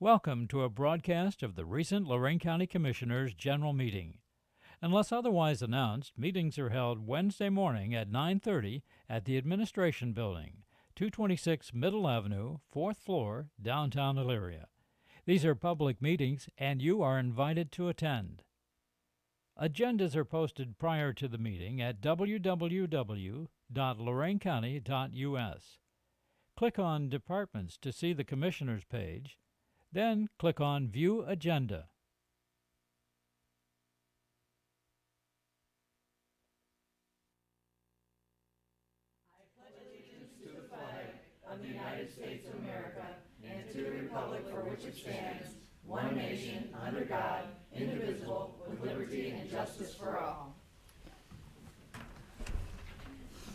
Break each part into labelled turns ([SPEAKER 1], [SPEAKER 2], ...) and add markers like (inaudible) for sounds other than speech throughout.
[SPEAKER 1] Welcome to a broadcast of the recent Lorraine County Commissioners' General Meeting. Unless otherwise announced, meetings are held Wednesday morning at 9:30 at the Administration Building, 226 Middle Avenue, 4th floor, downtown Elyria. These are public meetings and you are invited to attend. Agendas are posted prior to the meeting at www.loraincounty.us. Click on Departments to see the Commissioners page, then click on View Agenda.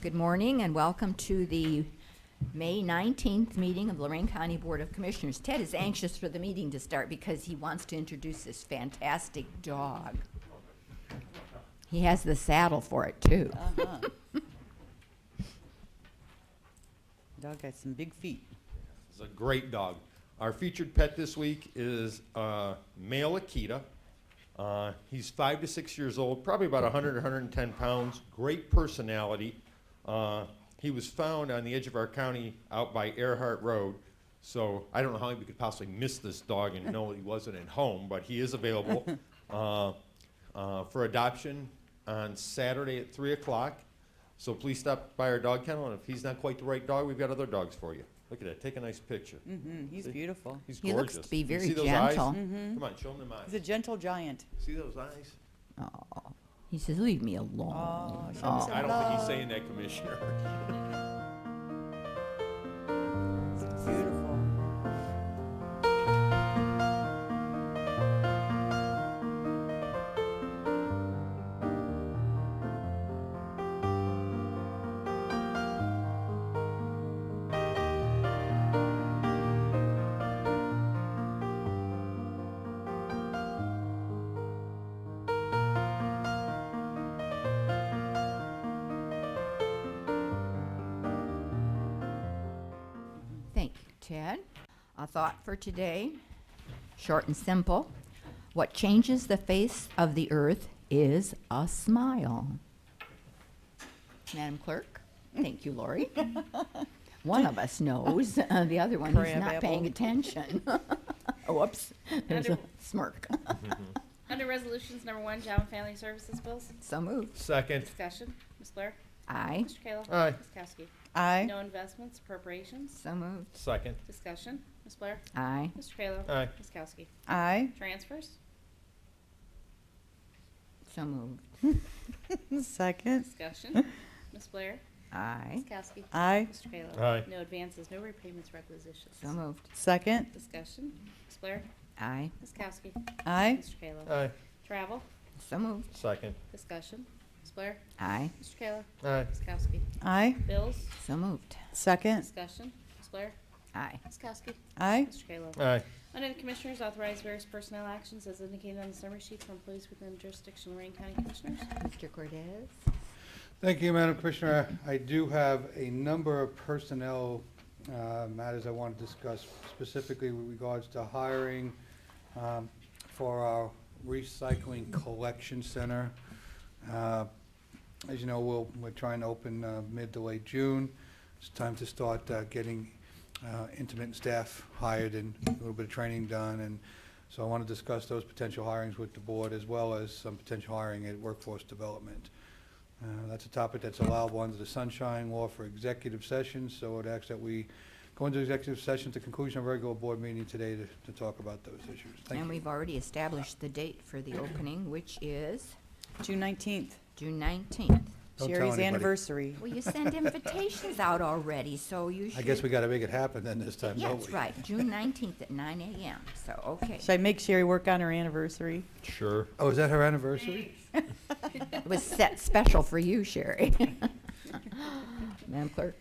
[SPEAKER 2] Good morning and welcome to the May 19th meeting of Lorraine County Board of Commissioners. Ted is anxious for the meeting to start because he wants to introduce this fantastic dog. He has the saddle for it, too.
[SPEAKER 3] Dog got some big feet.
[SPEAKER 4] It's a great dog. Our featured pet this week is uh, male Akita. Uh, he's five to six years old, probably about 100, 110 pounds. Great personality. Uh, he was found on the edge of our county out by Earhart Road. So I don't know how we could possibly miss this dog and know he wasn't at home, but he
[SPEAKER 2] (laughs)
[SPEAKER 4] is available uh, uh, for adoption on Saturday at 3 o'clock. So please stop by our dog kennel, and if he's not quite the right dog, we've got other dogs for you. Look at that. Take a nice picture.
[SPEAKER 3] Mm, he's beautiful.
[SPEAKER 4] He's
[SPEAKER 2] Mm-hmm. He
[SPEAKER 4] gorgeous.
[SPEAKER 2] looks to be
[SPEAKER 4] You
[SPEAKER 2] very
[SPEAKER 4] see those eyes?
[SPEAKER 2] gentle. Mm-hmm.
[SPEAKER 4] Come on, show him the eyes.
[SPEAKER 3] He's a gentle giant.
[SPEAKER 4] See those eyes?
[SPEAKER 2] He says, "Leave me alone."
[SPEAKER 3] Oh, show
[SPEAKER 2] Aw.
[SPEAKER 3] me some
[SPEAKER 4] I don't think he's
[SPEAKER 3] love.
[SPEAKER 4] saying that, Commissioner.
[SPEAKER 3] It's beautiful.
[SPEAKER 2] Thank you, Ted. A thought for today, short and simple. What changes the face of the earth is a smile. Madam Clerk, thank you,
[SPEAKER 3] (laughs)
[SPEAKER 2] Lori. One of us knows, uh, the other one is
[SPEAKER 3] Crab
[SPEAKER 2] not paying
[SPEAKER 3] apple. (laughs)
[SPEAKER 2] attention. Whoops, there's a
[SPEAKER 5] Under-
[SPEAKER 2] smirk.
[SPEAKER 5] Under Resolutions Number One, Job and Family Services Bills,
[SPEAKER 2] So moved.
[SPEAKER 4] Second.
[SPEAKER 5] discussion, Ms. Blair,
[SPEAKER 2] Aye,
[SPEAKER 5] Mr. Kayla.
[SPEAKER 4] Aye.
[SPEAKER 5] Ms. Kowski.
[SPEAKER 3] I,
[SPEAKER 5] No investments, appropriations,
[SPEAKER 2] so moved.
[SPEAKER 4] Second.
[SPEAKER 5] discussion, Ms. Blair,
[SPEAKER 2] Aye,
[SPEAKER 5] Mr. Kayla.
[SPEAKER 4] Aye.
[SPEAKER 5] Ms. Kowski.
[SPEAKER 3] I, (laughs)
[SPEAKER 2] (laughs)
[SPEAKER 5] Transfers,
[SPEAKER 2] so moved.
[SPEAKER 3] second,
[SPEAKER 5] discussion, Ms. Blair,
[SPEAKER 2] Aye,
[SPEAKER 5] Ms. Kowski.
[SPEAKER 3] I,
[SPEAKER 5] Mr. Kayla.
[SPEAKER 4] Aye.
[SPEAKER 5] No advances, no repayments, requisitions,
[SPEAKER 2] so moved.
[SPEAKER 3] second,
[SPEAKER 5] discussion, Ms. Blair,
[SPEAKER 2] Aye,
[SPEAKER 5] Ms. Kowski.
[SPEAKER 3] I,
[SPEAKER 5] Mr. Kayla.
[SPEAKER 4] Aye.
[SPEAKER 5] Travel,
[SPEAKER 2] so moved.
[SPEAKER 4] Second.
[SPEAKER 5] discussion, Ms. Blair,
[SPEAKER 2] Aye,
[SPEAKER 5] Mr. Kayla.
[SPEAKER 4] Aye.
[SPEAKER 5] Ms. Kowski.
[SPEAKER 3] I,
[SPEAKER 5] Bills,
[SPEAKER 2] so moved.
[SPEAKER 3] second,
[SPEAKER 5] discussion, Ms. Blair,
[SPEAKER 2] Aye,
[SPEAKER 5] Ms. Kowski.
[SPEAKER 3] I,
[SPEAKER 5] Mr. Kayla.
[SPEAKER 4] Aye.
[SPEAKER 5] Under the Commissioners, authorize various personnel actions as indicated on the summary sheet for employees within the jurisdiction of Lorraine County Commissioners.
[SPEAKER 2] Mr. Cordez?
[SPEAKER 6] Thank you, Madam Commissioner. I do have a number of personnel uh, matters I want to discuss specifically with regards to hiring um, for our recycling collection center. Uh, As you know, we'll, we're trying to open uh, mid to late June. It's time to start uh, getting uh, intermittent staff hired and a little bit of training done. And so I want to discuss those potential hirings with the board as well as some potential hiring at workforce development. Uh, That's a topic that's allowable under the sunshine law for executive sessions, so it asks that we go into executive session at the conclusion of our regular board meeting today to, to talk about those issues. Thank
[SPEAKER 2] And
[SPEAKER 6] you.
[SPEAKER 2] we've already established the date for the opening, which is
[SPEAKER 3] June nineteenth,
[SPEAKER 2] June nineteenth.
[SPEAKER 6] Don't tell
[SPEAKER 3] Sherry's
[SPEAKER 6] anybody.
[SPEAKER 3] anniversary.
[SPEAKER 2] Well, you
[SPEAKER 6] (laughs)
[SPEAKER 2] send invitations out already, so you should.
[SPEAKER 6] I guess we gotta make it happen then this time,
[SPEAKER 2] Yeah,
[SPEAKER 6] don't we?
[SPEAKER 2] that's right, June nineteenth at nine AM, so,
[SPEAKER 6] (laughs)
[SPEAKER 2] okay.
[SPEAKER 3] Should I make Sherry work on her anniversary?
[SPEAKER 4] Sure.
[SPEAKER 6] Oh, is that her anniversary?
[SPEAKER 2] (laughs) It was set special for you, Sherry. Madam Clerk?